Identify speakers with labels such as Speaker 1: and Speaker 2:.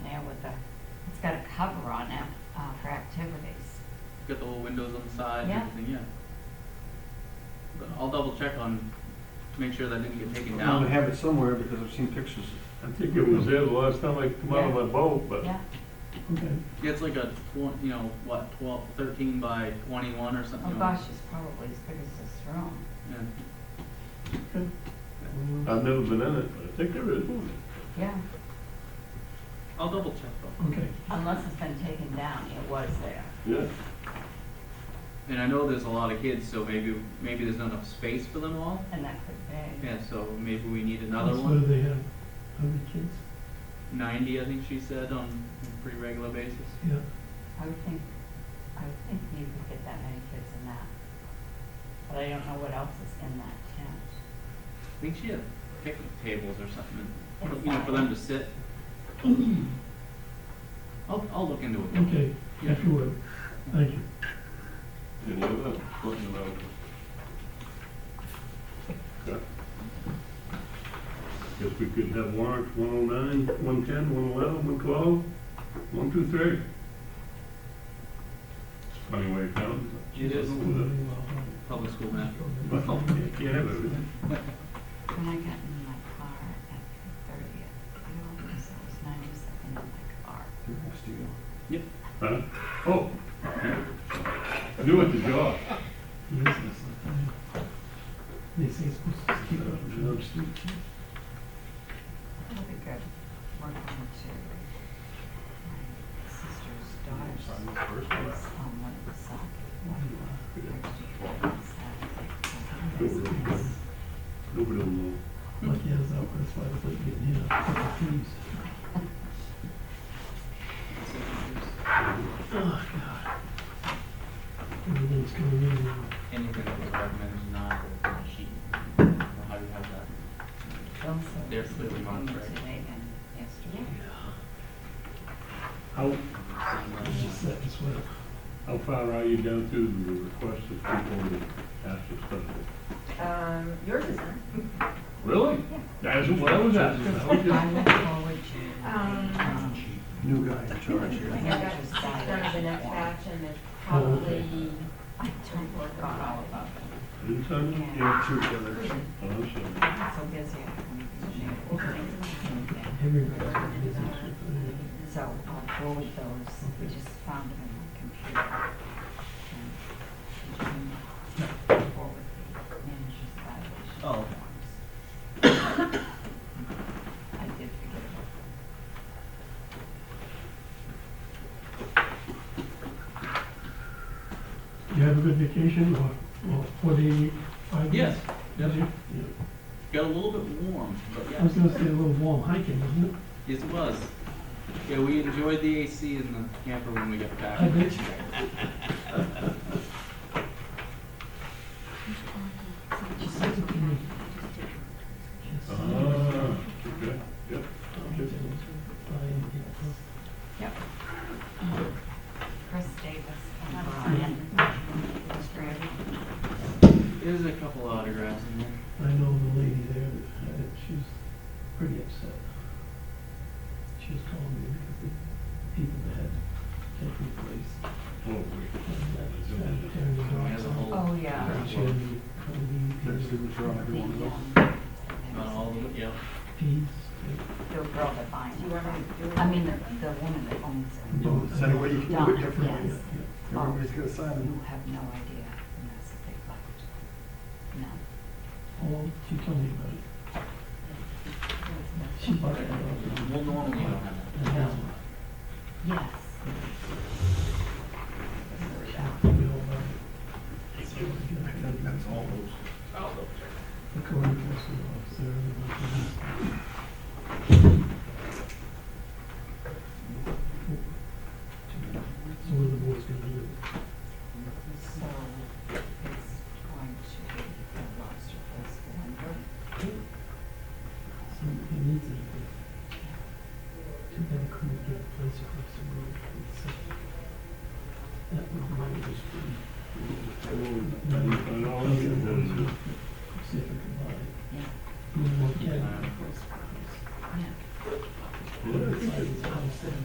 Speaker 1: cover on it uh, for activities.
Speaker 2: Got the little windows on the side
Speaker 1: Yeah.
Speaker 2: and everything, yeah. But I'll double check on, to make sure that didn't get taken
Speaker 3: I'm gonna
Speaker 2: down.
Speaker 3: have it somewhere because I've seen pictures.
Speaker 4: I think it was there the last time I come out of my boat, but.
Speaker 1: Yeah,
Speaker 4: Okay.
Speaker 2: Yeah, it's like a tw- you know, what, twelve, thirteen by twenty-one or
Speaker 1: oh
Speaker 2: something.
Speaker 1: gosh, it's probably as big as this room.
Speaker 2: Yeah.
Speaker 4: I've never been in it, but I think there is one.
Speaker 1: Yeah,
Speaker 2: I'll double check though.
Speaker 4: Okay.
Speaker 1: unless it's been taken down, it was there.
Speaker 4: Yeah.
Speaker 2: And I know there's a lot of kids, so maybe, maybe there's not enough space for them all.
Speaker 1: And that could be.
Speaker 2: Yeah, so maybe we need another
Speaker 4: So
Speaker 2: one.
Speaker 4: they have, how many kids?
Speaker 2: Ninety, I think she said, on a pretty regular basis.
Speaker 4: Yeah.
Speaker 1: I would think, I would think you could get that many kids in that. But I don't know what else is in that tent.
Speaker 2: I think she had picnic tables or something, and, you know, for them to sit. I'll, I'll look into it.
Speaker 5: Okay, yes, you would. Thank you.
Speaker 4: Any other, looking about? Okay. Guess we could have warrants, one oh nine, one ten, one eleven, one twelve, one two three. It's a funny way of counting.
Speaker 2: It is
Speaker 4: Well,
Speaker 2: public school matter.
Speaker 4: you can't have everything.
Speaker 1: When I got in my car at three thirty, I almost, I was ninety-seven in my car.
Speaker 3: They're next to you.
Speaker 4: Huh? Oh. I knew it, the jaw.
Speaker 5: Yes, yes, I- They say it's supposed to keep it on the street.
Speaker 1: That'll be good. We're going to my sister's daughter's house on one of the side.
Speaker 4: Nobody will know.
Speaker 5: Lucky as that was, why I was getting hit up with the trees. Oh, God. Everything's coming in now.
Speaker 2: Anything that was recommended is not on the sheet. I don't know How you have that? They're clearly monitoring.
Speaker 1: Today and yesterday.
Speaker 4: How,
Speaker 5: It's just that as well.
Speaker 4: how far are you down to the request of people to ask for stuff?
Speaker 6: Um, yours isn't.
Speaker 4: Really? That's what I was asking. I was
Speaker 1: I
Speaker 4: just-
Speaker 1: look forward to, um,
Speaker 6: Um,
Speaker 3: New guy in charge
Speaker 6: I
Speaker 3: here.
Speaker 6: think that's done the next batch and there's
Speaker 5: Oh,
Speaker 6: probably
Speaker 5: okay.
Speaker 1: I totally forgot all about it.
Speaker 4: Didn't sound it?
Speaker 3: Yeah, two together.
Speaker 4: Oh, I'm sorry.
Speaker 1: I'm so busy. I couldn't be there.
Speaker 5: Everybody's got business with it.
Speaker 1: So I'll forward those. We just found them in my computer. And we can forward the manager's evaluation
Speaker 2: Oh.
Speaker 1: forms. I did forget about them.
Speaker 5: You have a good vacation or, or forty-five?
Speaker 2: Yes,
Speaker 5: Did you? Yeah.
Speaker 2: got a little bit warm, but
Speaker 5: I was
Speaker 2: yeah,
Speaker 5: gonna say a little warm hiking, isn't it?
Speaker 2: it was. Yeah, we enjoyed the AC in the camper when we got back.
Speaker 5: I bet you.
Speaker 4: Ah, okay, yep.
Speaker 1: Yep. Chris Davis and Brian.
Speaker 6: Uh-huh.
Speaker 1: Strand.
Speaker 2: There's a couple autographs in there.
Speaker 5: I know the lady there, that had it. she was pretty upset. She was calling me because the people that had taken the place,
Speaker 4: Oh, wait.
Speaker 5: and that was tearing the
Speaker 2: We had a
Speaker 5: dogs out.
Speaker 2: whole-
Speaker 1: Oh, yeah.
Speaker 5: And She had me calling me,
Speaker 3: There's the withdrawal,
Speaker 1: The,
Speaker 3: everyone goes.
Speaker 1: um,
Speaker 2: Not all of it, yeah.
Speaker 5: peas,
Speaker 1: The girl that finds
Speaker 6: Do you want me to do it?
Speaker 1: I mean, the, the woman that owns it.
Speaker 5: No,
Speaker 3: Is that a way you can do it differently?
Speaker 1: Yes.
Speaker 3: Everybody's gonna sign
Speaker 1: You
Speaker 3: them.
Speaker 1: have no idea the mess that they left. No.
Speaker 5: all, she told me about it. She bought it.
Speaker 2: Well, normally you don't have that.
Speaker 5: And that's-
Speaker 1: Yes,
Speaker 4: Oh,
Speaker 2: uh,